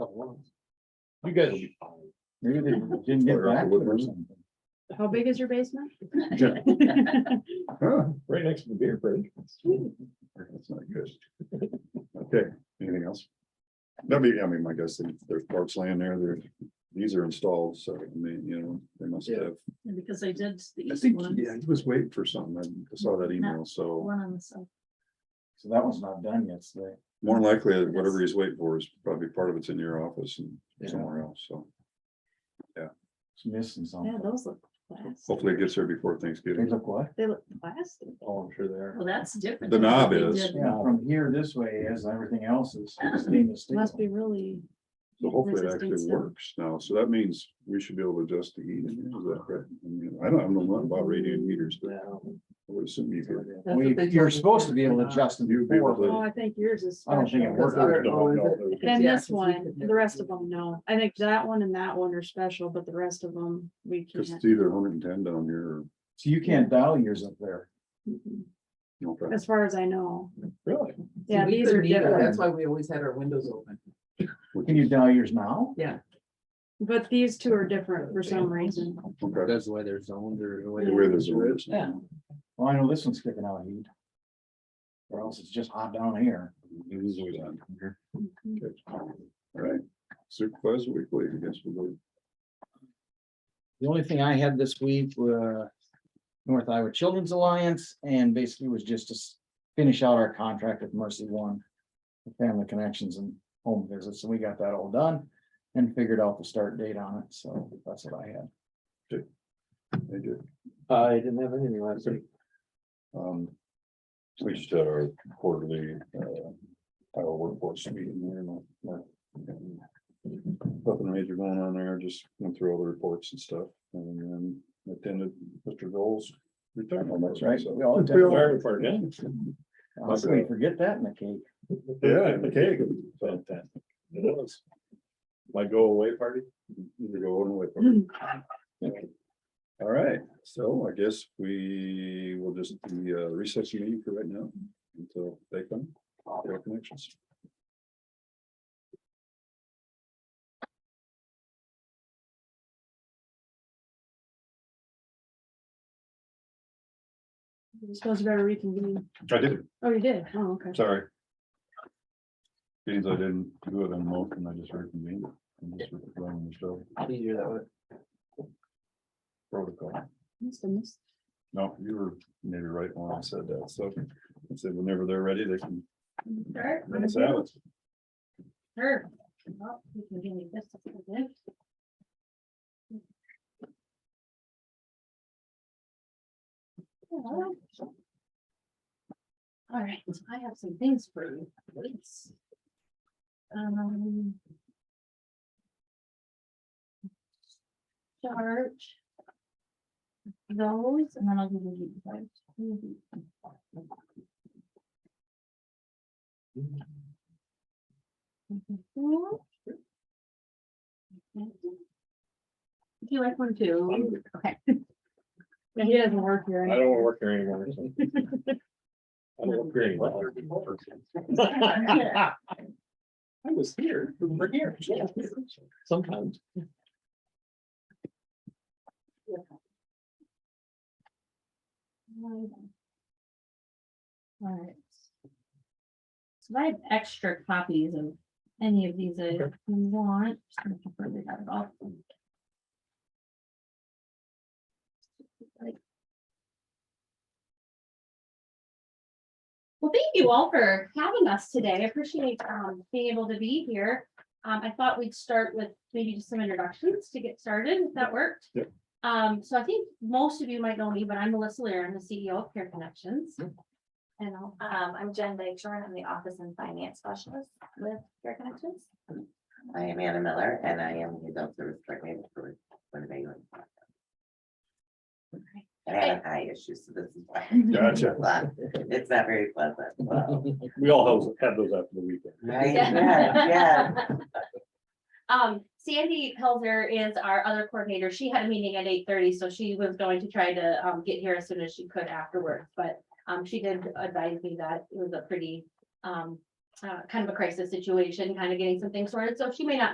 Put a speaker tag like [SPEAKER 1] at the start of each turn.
[SPEAKER 1] You guys.
[SPEAKER 2] Maybe they didn't get back to it or something.
[SPEAKER 3] How big is your basement?
[SPEAKER 2] Huh,
[SPEAKER 1] Right next to the beer fridge.
[SPEAKER 2] That's not good. Okay, anything else? No, maybe, I mean, my guess, is there's parks land there, there, these are installed, so, I mean, you know, they must
[SPEAKER 1] Yeah.
[SPEAKER 2] have.
[SPEAKER 3] Because they did the
[SPEAKER 2] I
[SPEAKER 3] east
[SPEAKER 2] think,
[SPEAKER 3] one,
[SPEAKER 2] yeah, he was waiting for something, I saw that email, so.
[SPEAKER 3] one on the south.
[SPEAKER 4] So that one's not done yet today.
[SPEAKER 2] More than likely, that whatever he's waiting for is probably part of it's in your office and somewhere else, so
[SPEAKER 4] It's missing something.
[SPEAKER 3] Yeah, those look plastic.
[SPEAKER 2] hopefully it gets there before
[SPEAKER 4] They
[SPEAKER 2] Thanksgiving.
[SPEAKER 4] look what?
[SPEAKER 3] They look plastic.
[SPEAKER 1] Oh, I'm sure they are.
[SPEAKER 3] Well, that's different.
[SPEAKER 2] The
[SPEAKER 3] than what
[SPEAKER 2] knob
[SPEAKER 3] they
[SPEAKER 2] is.
[SPEAKER 3] did.
[SPEAKER 4] Yeah, from here this way as everything else is stainless steel.
[SPEAKER 3] Must be really.
[SPEAKER 2] So hopefully it
[SPEAKER 3] resistant
[SPEAKER 2] actually
[SPEAKER 3] to-
[SPEAKER 2] works now, so that means we should be able to adjust the heat. Is that correct? I mean, I don't, I don't know nothing about radiant heaters, but I would assume you could.
[SPEAKER 3] what
[SPEAKER 4] We-
[SPEAKER 3] they
[SPEAKER 4] You're
[SPEAKER 3] told me.
[SPEAKER 4] supposed to be able to adjust them
[SPEAKER 2] You'd be able
[SPEAKER 4] before.
[SPEAKER 2] to-
[SPEAKER 3] Oh, I think yours is.
[SPEAKER 4] I don't think it
[SPEAKER 3] special.
[SPEAKER 4] worked.
[SPEAKER 2] I don't know.
[SPEAKER 3] And this one, the rest of them, no. I think that one and that one are special, but the rest of them, we
[SPEAKER 2] Cause it's
[SPEAKER 3] can't.
[SPEAKER 2] either hundred and ten down here or.
[SPEAKER 4] So you can't dial yours up there.
[SPEAKER 3] Mhm.
[SPEAKER 2] no, but
[SPEAKER 3] As far as I know.
[SPEAKER 1] Really?
[SPEAKER 5] See,
[SPEAKER 3] Yeah,
[SPEAKER 5] we
[SPEAKER 3] these are
[SPEAKER 5] couldn't either.
[SPEAKER 3] different,
[SPEAKER 5] That's why we always had our windows open.
[SPEAKER 4] Can you dial yours now?
[SPEAKER 3] but these two are different for some reason.
[SPEAKER 2] okay.
[SPEAKER 6] That's why they're zoned or the way
[SPEAKER 2] The way there's a ridge.
[SPEAKER 5] Yeah.
[SPEAKER 4] Well, I know this one's kicking out heat. Or else it's just hot down here.
[SPEAKER 2] It is always on.
[SPEAKER 3] Mhm.
[SPEAKER 2] Good. All right, supervisor weekly, I guess we'll go.
[SPEAKER 6] The only thing I had this week were North Iowa Children's Alliance and basically was just to s- finish out our contract with Mercy One. for Family connections and home visits, and we got that all done and figured out the start date on it, so that's what I had.
[SPEAKER 2] Thank you.
[SPEAKER 1] Uh, I didn't have anything last week.
[SPEAKER 2] Um, We just had our quarterly, uh, our workforce meeting here. and, uh, Nothing major going on there, just went through all the reports and stuff, and then attended Mr. Gold's retirement.
[SPEAKER 4] Oh, That's right.
[SPEAKER 2] So-
[SPEAKER 4] We all did.
[SPEAKER 1] Very
[SPEAKER 2] Yeah,
[SPEAKER 1] important, yeah.
[SPEAKER 4] How can we forget that in the cake?
[SPEAKER 2] and the cake. so,
[SPEAKER 1] Fantastic. It was. My go away party?
[SPEAKER 2] Either going away. All right, so I guess we will just be uh, recessing meeting for right now until they come. their connections.
[SPEAKER 3] You're supposed to better reconvene.
[SPEAKER 2] I did,
[SPEAKER 3] Oh, you did? Oh, okay.
[SPEAKER 2] sorry. Means I didn't do it on motion, I just reconvened. and just running the show
[SPEAKER 6] Easier that way.
[SPEAKER 2] Protocol.
[SPEAKER 3] Must have missed.
[SPEAKER 2] No, you were maybe right when I said that, so I said whenever they're ready, they can.
[SPEAKER 3] Sure.
[SPEAKER 2] run us out.
[SPEAKER 3] Sure. Well, we can give you this if you want. All right, I have some things for you, please. Um. Charge. Those, and then I'll give you. these, right? Would you like one too? Okay. He doesn't work
[SPEAKER 1] I
[SPEAKER 3] here.
[SPEAKER 1] don't wanna work here anymore. so. I don't work here anymore. I was here, we we're here. yeah. Sometimes.
[SPEAKER 3] All right. So I have extra copies of any of these I want. just gonna confirm they got it all.
[SPEAKER 7] Well, thank you all for having us today. I appreciate um being able to be here. Um, I thought we'd start with maybe just some introductions to get started, if that worked.
[SPEAKER 2] Yep.
[SPEAKER 7] Um, so I think most of you might know me, but I'm Melissa Lear, I'm the CEO of Care Connections. And I'll-
[SPEAKER 8] Um, I'm Jen Dykstra, I'm the Office and Finance Specialist with Care Connections.
[SPEAKER 9] I am Anna Miller and I am the adult service drug manager for Winnipeg. I have eye issues, so this is why.
[SPEAKER 2] Gotcha.
[SPEAKER 9] It's not very pleasant. Wow.
[SPEAKER 1] We all have, have those after the weekend.
[SPEAKER 9] Right, yeah, yeah.
[SPEAKER 7] Um, Sandy Helzer is our other coordinator. She had a meeting at eight thirty, so she was going to try to um get here as soon as she could afterwards, but. Um, she did advise me that it was a pretty um, uh, kind of a crisis situation, kind of getting some things sorted, so she may not